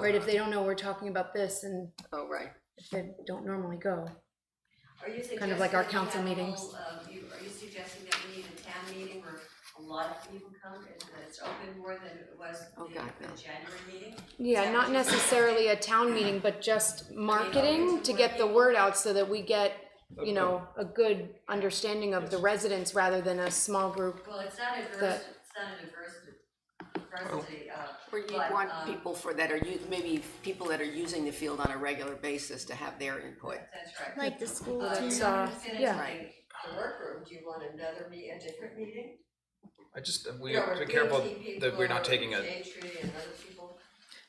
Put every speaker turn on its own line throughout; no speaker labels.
Right, if they don't know we're talking about this and
Oh, right.
if they don't normally go.
Are you suggesting?
Kind of like our
that we
council
have a
meetings.
whole, uh, you- Are you suggesting that we need a town meeting where a lot of people come, and that it's open more than it was the
Oh, God, no.
the January meeting?
Yeah, not necessarily a town meeting, but just marketing to get the word out so that we get, you know, a good understanding of the residents rather than a small group.
Well, it's not adverse, it's not an adverse diversity, uh,
Where you
but,
want
um,
people for, that are, u- maybe people that are using the field on a regular basis to have their input.
That's right.
Like the school
Uh,
team.
you're
uh,
not gonna fit into
yeah.
the- the workroom, do you want another meet, a different meeting?
I just, uh, we
You know,
have
where
to be careful
BT
that we're not
people or
taking a,
Shade Tree and other people.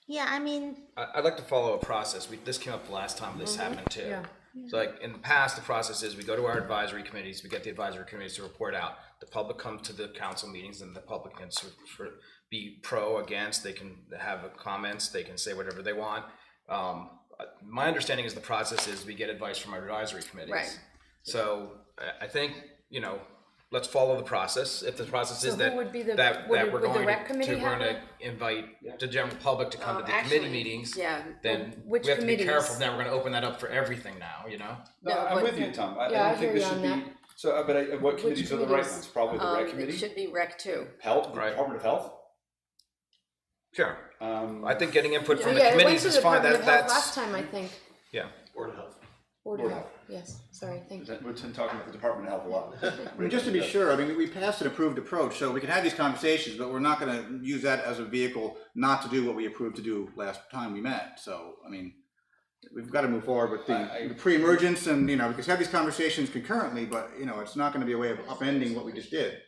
Yeah, I mean,
I, I'd like to follow a process. We, this came up the last time this happened too.
Mm-hmm. Yeah.
So like in the past, the process is we go to our advisory committees, we get the advisory committees to report out. The public comes to the council meetings and the public can sort of- sort of be pro, against, they can have comments, they can say whatever they want. Um, uh, my understanding is the process is we get advice from our advisory committees.
Right.
So I, I think, you know, let's follow the process. If the process is
who
that,
would be the-
that,
would
that
it-
we're
would the
going
rec
to,
committee Oh,
to, we're
have
gonna invite the general public to come to the committee
Um, actually,
meetings.
yeah.
Then we
Which
have to be careful.
committees?
Now we're gonna open that up for everything now, you know?
No,
No,
I'm
but-
with you, Tom. I, I
Yeah, I
don't think
hear
this
you
should
on
be, so, uh, but I- what committees are the right
committees?
ones? Probably the
Um,
rec
it
committee,
should be rec too.
health,
Right.
Department of Health.
Sure.
Um,
I think getting input from the
Yeah, it went
committees
to
is
the
fine,
Department of
that,
Health last
that's,
time, I think.
yeah.
Board of
Board of
Health, yes, sorry, thank
is
you.
that- we've been talking about the Department of Health a lot.
I mean, just to be sure, I mean, we passed an approved approach, so we can have these conversations, but we're not gonna use that as a vehicle not to do what we approved to do last time we met, so, I mean, we've gotta move forward with
I- I-
the the pre-emergence and, you know, we can have these conversations concurrently, but, you know, it's not gonna be a way of upending what we just did.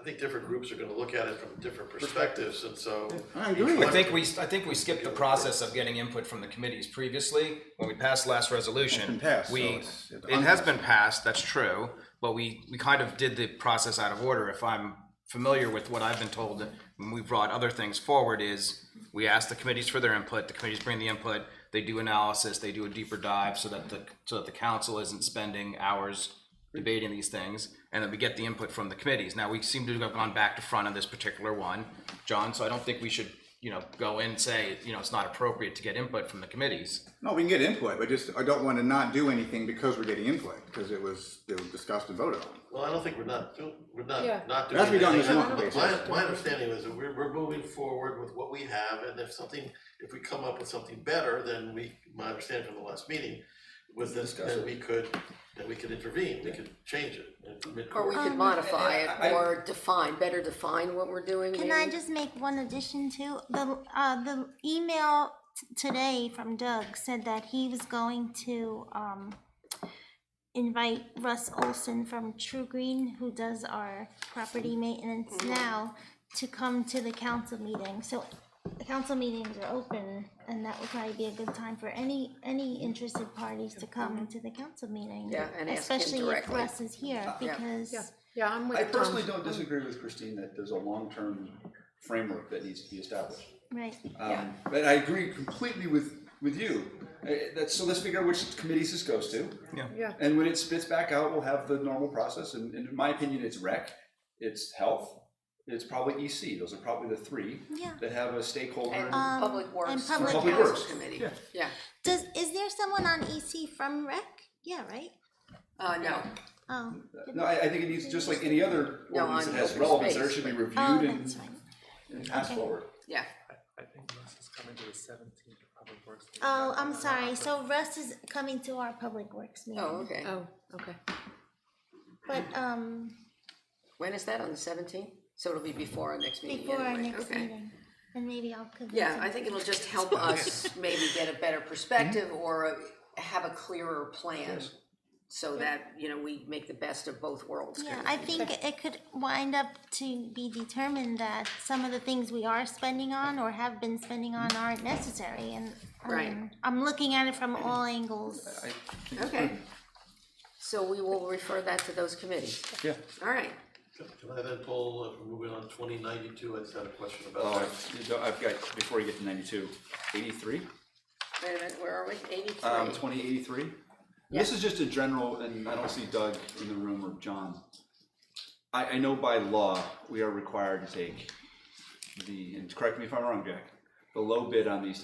I think different groups are gonna look at it from different perspectives, and so.
I agree.
I think we, I think we skipped the process of getting input from the committees previously, when we passed last resolution.
been passed, so
We,
it's- it's
it has
unpassed.
been passed, that's true, but we, we kind of did the process out of order. If I'm familiar with what I've been told, when we brought other things forward is, we ask the committees for their input, the committees bring the input, they do analysis, they do a deeper dive so that the, so that the council isn't spending hours debating these things, and then we get the input from the committees. Now, we seem to have gone back to front on this particular one, John, so I don't think we should, you know, go in and say, you know, it's not appropriate to get input from the committees.
No, we can get input, but just, I don't wanna not do anything because we're getting input, because it was, it was discussed and voted on.
Well, I don't think we're not, do- we're not,
Yeah.
not doing.
That's what we done this
anything.
month,
But My, my understanding is that we're, we're moving forward with what we have, and if something, if we come up with something better, then we, my understanding from the last meeting was that,
Discuss
that
it.
we could, that we could intervene, we could change it. in
Or we
mid-course.
Um,
could modify
I-
it
I-
or define, better define what we're doing.
Can I
maybe.
just make one addition to the uh, the email t- today from Doug said that he was going to um, invite Russ Olson from True Green, who does our property maintenance
Mm-hmm.
now, to come to the council meeting. So the council meetings are open, and that would probably be a good time for any any interested parties to come to the council meeting.
Mm-hmm. Yeah, and ask him
especially if
directly.
Russ is here because.
Yeah, yeah, I'm with
I
Tom.
personally don't disagree with Christine that there's a long-term framework that needs to be established.
Right.
Um, but I agree completely with, with you. Uh, that's, so let's figure out which committees this goes to.
Yeah.
Yeah.
And when it spits back out, we'll have the normal process, and, and in my opinion, it's rec, it's health, it's probably EC, those are probably the three.
Yeah.
That have a stakeholder.
And
in-
Um,
Public
and
Works.
Public
Public
Council
Works.
Committee,
Yeah.
yeah,
Does is there someone on EC from Rec? Yeah, right.
uh, no,
Oh,
No, I, I think it needs, just like any other
No,
ordinance
on
that has
open
relevance, there
space,
should be
but-
reviewed
oh,
and,
that's right.
and passed
Okay.
forward.
yeah.
I think Russ is coming to the seventeenth Public Works. meeting.
Oh, I'm
That's
sorry. So Russ is coming to our public works meeting,
Oh, okay.
Oh, okay.
but um,
When is that, on the seventeenth? So it'll be before our next meeting
before our
anyway.
next
Okay.
meeting, and maybe I'll convince.
Yeah,
him.
I think it'll just help us maybe get a better perspective or have a clearer plan. So that, you know, we make the best of both worlds.
Yeah, I think it could wind up to be determined that some of the things we are spending on or have been spending on aren't necessary, and
Right.
um, I'm looking at it from all angles.
I think it's
Okay.
prudent.
So we will refer that to those committees.
Yeah.
All right,
Can I then pull, if we're moving on twenty ninety-two, I just had a question about
Oh,
that.
I've, I've got, before you get to ninety-two, eighty-three?
wait a minute, where are we? Eighty-three?
Um, twenty eighty-three? This is just a general, and I don't see Doug in the room or John. I, I know by law, we are required to take the, and correct me if I'm wrong, Jack, the low bid on these